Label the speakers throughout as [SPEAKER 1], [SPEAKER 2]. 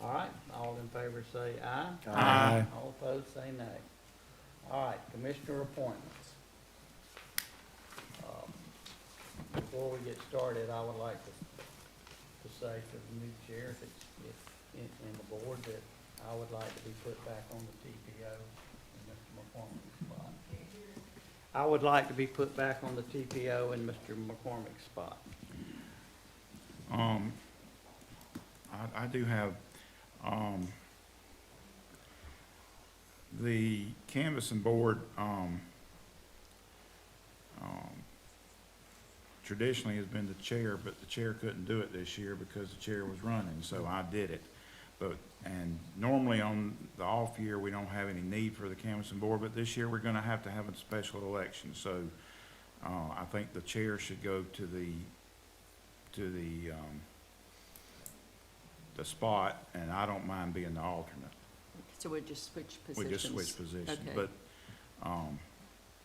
[SPEAKER 1] right, all in favor say aye.
[SPEAKER 2] Aye.
[SPEAKER 1] All opposed say nay. All right, commissioner appointments. Um, Before we get started, I would like to, to say to the new chair, if it's, if, in, in the board, that I would like to be put back on the TPO in Mr. McCormick's spot. I would like to be put back on the TPO in Mr. McCormick's spot.
[SPEAKER 2] Um, I, I do have, um, the canvassing board, um, um, traditionally has been the chair, but the chair couldn't do it this year because the chair was running, so I did it. But, and normally on the off year, we don't have any need for the canvassing board, but this year we're gonna have to have a special election, so, uh, I think the chair should go to the, to the, um, the spot, and I don't mind being the alternate.
[SPEAKER 3] So we just switch
[SPEAKER 2] We
[SPEAKER 3] positions?
[SPEAKER 2] just switch positions,
[SPEAKER 3] Okay.
[SPEAKER 2] but, um,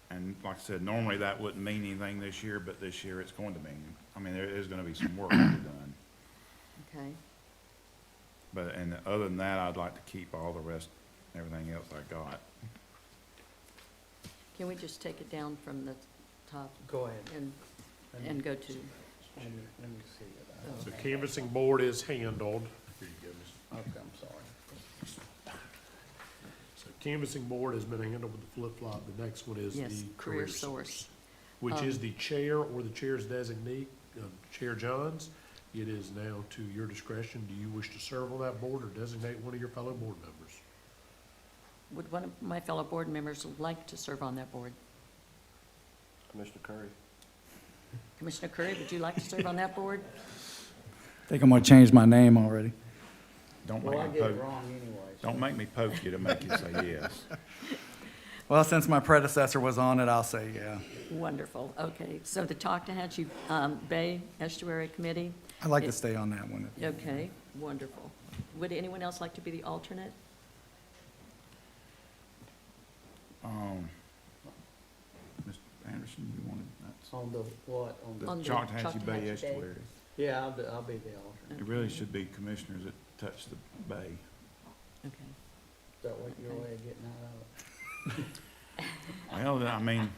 [SPEAKER 2] and like I said, normally that wouldn't mean anything this year, but this year it's going to mean, I mean, there is gonna be some work to be done.
[SPEAKER 3] Okay,
[SPEAKER 2] But, and other than that, I'd like to keep all the rest, everything else I got.
[SPEAKER 3] can we just take it down from the top
[SPEAKER 1] Go ahead.
[SPEAKER 3] and,
[SPEAKER 1] Let me-
[SPEAKER 3] and go to,
[SPEAKER 1] Let me let me see it. I don't
[SPEAKER 3] Oh.
[SPEAKER 4] The
[SPEAKER 1] have it.
[SPEAKER 4] canvassing board is handled. Here you go, miss.
[SPEAKER 1] Okay, I'm sorry.
[SPEAKER 4] So canvassing board has been handled with the flip-flop. The next one is
[SPEAKER 3] yes,
[SPEAKER 4] the
[SPEAKER 3] career source?
[SPEAKER 4] Which is
[SPEAKER 3] Um,
[SPEAKER 4] the chair or the chair's designee, uh, Chair Johns. It is now to your discretion. Do you wish to serve on that board or designate one of your fellow board members?
[SPEAKER 3] Would one of my fellow board members like to serve on that board?
[SPEAKER 5] Commissioner Curry.
[SPEAKER 3] Commissioner Curry, would you like to serve on that board?
[SPEAKER 6] Think I'm gonna change my name already.
[SPEAKER 2] Don't
[SPEAKER 1] Well, I
[SPEAKER 2] make me
[SPEAKER 1] get it
[SPEAKER 2] poke,
[SPEAKER 1] wrong anyway. so-
[SPEAKER 2] don't make me poke you to make you say yes.
[SPEAKER 6] Well, since my predecessor was on it, I'll say yeah.
[SPEAKER 3] Wonderful, okay. So the Talkatahatchee um, Bay Estuary Committee,
[SPEAKER 6] I'd like
[SPEAKER 3] It-
[SPEAKER 6] to stay on that one.
[SPEAKER 3] okay, wonderful. Would anyone else like to be the alternate?
[SPEAKER 2] Um, Mr. Anderson, you wanted, that's,
[SPEAKER 1] On the what, on the,
[SPEAKER 3] On
[SPEAKER 2] the
[SPEAKER 3] the
[SPEAKER 2] Choctahatchee
[SPEAKER 3] Choctahatchee
[SPEAKER 2] Bay
[SPEAKER 3] Bay.
[SPEAKER 2] estuary.
[SPEAKER 1] yeah, I'll, be- I'll be the alternate.
[SPEAKER 2] It really should be commissioners that touch the bay.
[SPEAKER 3] Okay.
[SPEAKER 1] Is that what your way of getting out of it?
[SPEAKER 2] Well, then, I mean,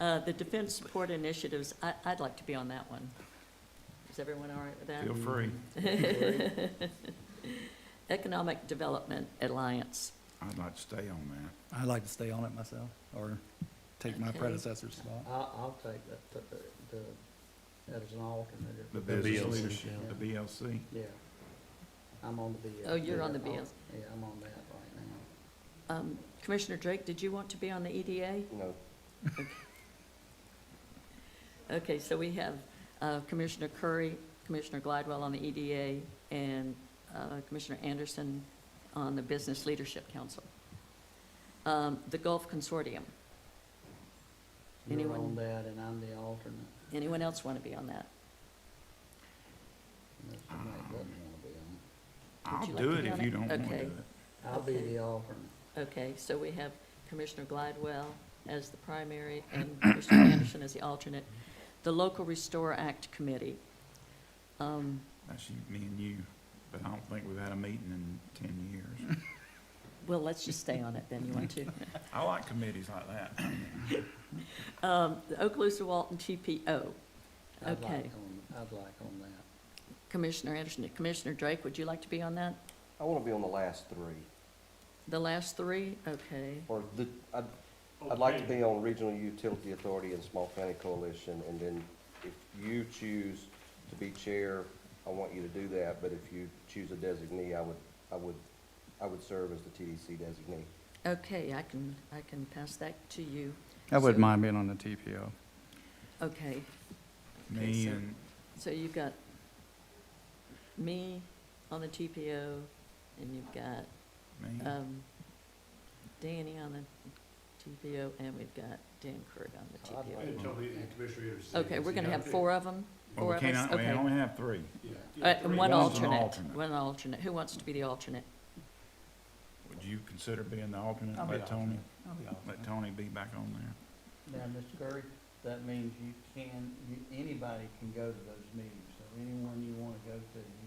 [SPEAKER 3] Uh, The Defense Support Initiatives, I- I'd like to be on that one. Is everyone all right with that?
[SPEAKER 2] feel free.
[SPEAKER 3] Economic Development Alliance.
[SPEAKER 2] I'd like to stay on that.
[SPEAKER 6] I'd like to stay on it myself, or take my
[SPEAKER 3] Okay.
[SPEAKER 6] predessor's spot.
[SPEAKER 1] I'll, I'll take that, the, the- the, as an alternate. if-
[SPEAKER 2] The
[SPEAKER 4] The
[SPEAKER 2] business
[SPEAKER 4] BLC.
[SPEAKER 2] leadership, the BLC.
[SPEAKER 1] Yeah. I'm on the BS.
[SPEAKER 3] Oh, you're on the
[SPEAKER 1] Yeah, I'll-
[SPEAKER 3] BS.
[SPEAKER 1] Yeah, I'm on that right now.
[SPEAKER 3] Um, Commissioner Drake, did you want to be on the E EDA?
[SPEAKER 5] No.
[SPEAKER 3] Okay, so we have uh, Commissioner Curry, Commissioner Glidewell on the EDA, and uh, Commissioner Anderson on the Business Leadership Council. Um, The Gulf Consortium,
[SPEAKER 1] You're
[SPEAKER 3] Anyone?
[SPEAKER 1] on that and I'm the alternate.
[SPEAKER 3] anyone else want to be on that?
[SPEAKER 1] Mr.
[SPEAKER 2] Ah.
[SPEAKER 1] Knight doesn't wanna be on.
[SPEAKER 2] I'll
[SPEAKER 3] you like
[SPEAKER 2] do
[SPEAKER 3] to
[SPEAKER 2] it
[SPEAKER 3] be
[SPEAKER 2] if
[SPEAKER 3] on
[SPEAKER 2] you
[SPEAKER 3] it?
[SPEAKER 2] don't want to
[SPEAKER 3] Okay.
[SPEAKER 2] do it.
[SPEAKER 1] I'll be
[SPEAKER 3] Okay.
[SPEAKER 1] the alternate.
[SPEAKER 3] Okay, so we have Commissioner Glidewell as the primary and Commissioner Anderson as the alternate. The Local Restore Act Committee. Um,
[SPEAKER 2] That's you, me and you, but I don't think we've had a meeting in ten years.
[SPEAKER 3] Well, let's just stay on it then, you want to?
[SPEAKER 2] I like committees like that.
[SPEAKER 3] Um, The Okaloosa Walton oh, TPO,
[SPEAKER 1] I'd like
[SPEAKER 3] Okay.
[SPEAKER 1] on- I'd like on that.
[SPEAKER 3] Commissioner Anderson, Commissioner Drake, would you like to be on that?
[SPEAKER 5] I want to be on the last three,
[SPEAKER 3] The last three, okay.
[SPEAKER 5] or the, I'd, I'd like to be on Regional Utility Authority and Small County Coalition, and then if you choose to be chair, I want you to do that, but if you choose a designee, I would, I would, I would serve as the TDC designee.
[SPEAKER 3] Okay, I can, I can pass that to you.
[SPEAKER 6] I wouldn't
[SPEAKER 3] So-
[SPEAKER 6] mind being on the TPO.
[SPEAKER 3] Okay,
[SPEAKER 2] Me
[SPEAKER 3] so-
[SPEAKER 2] and,
[SPEAKER 3] so you've got me on the TPO, and you've got
[SPEAKER 2] me,
[SPEAKER 3] um, Danny on the TPO, and we've got Dan Kirk on the
[SPEAKER 1] I'd
[SPEAKER 3] TPO.
[SPEAKER 1] like-
[SPEAKER 3] Okay, we're gonna have four of them?
[SPEAKER 2] well, we
[SPEAKER 3] Four of us,
[SPEAKER 2] can't, we
[SPEAKER 3] okay.
[SPEAKER 2] only have three.
[SPEAKER 3] Uh, And one
[SPEAKER 2] One's an
[SPEAKER 3] alternate,
[SPEAKER 2] alternate.
[SPEAKER 3] one alternate. Who wants to be the alternate?
[SPEAKER 2] Would you consider being the alternate,
[SPEAKER 6] I'll be
[SPEAKER 2] let Tony,
[SPEAKER 6] I'll be
[SPEAKER 2] let Tony be back on there?
[SPEAKER 1] Now, Mr. Curry, that means you can, you- anybody can go to those meetings, so anyone you want to go to, you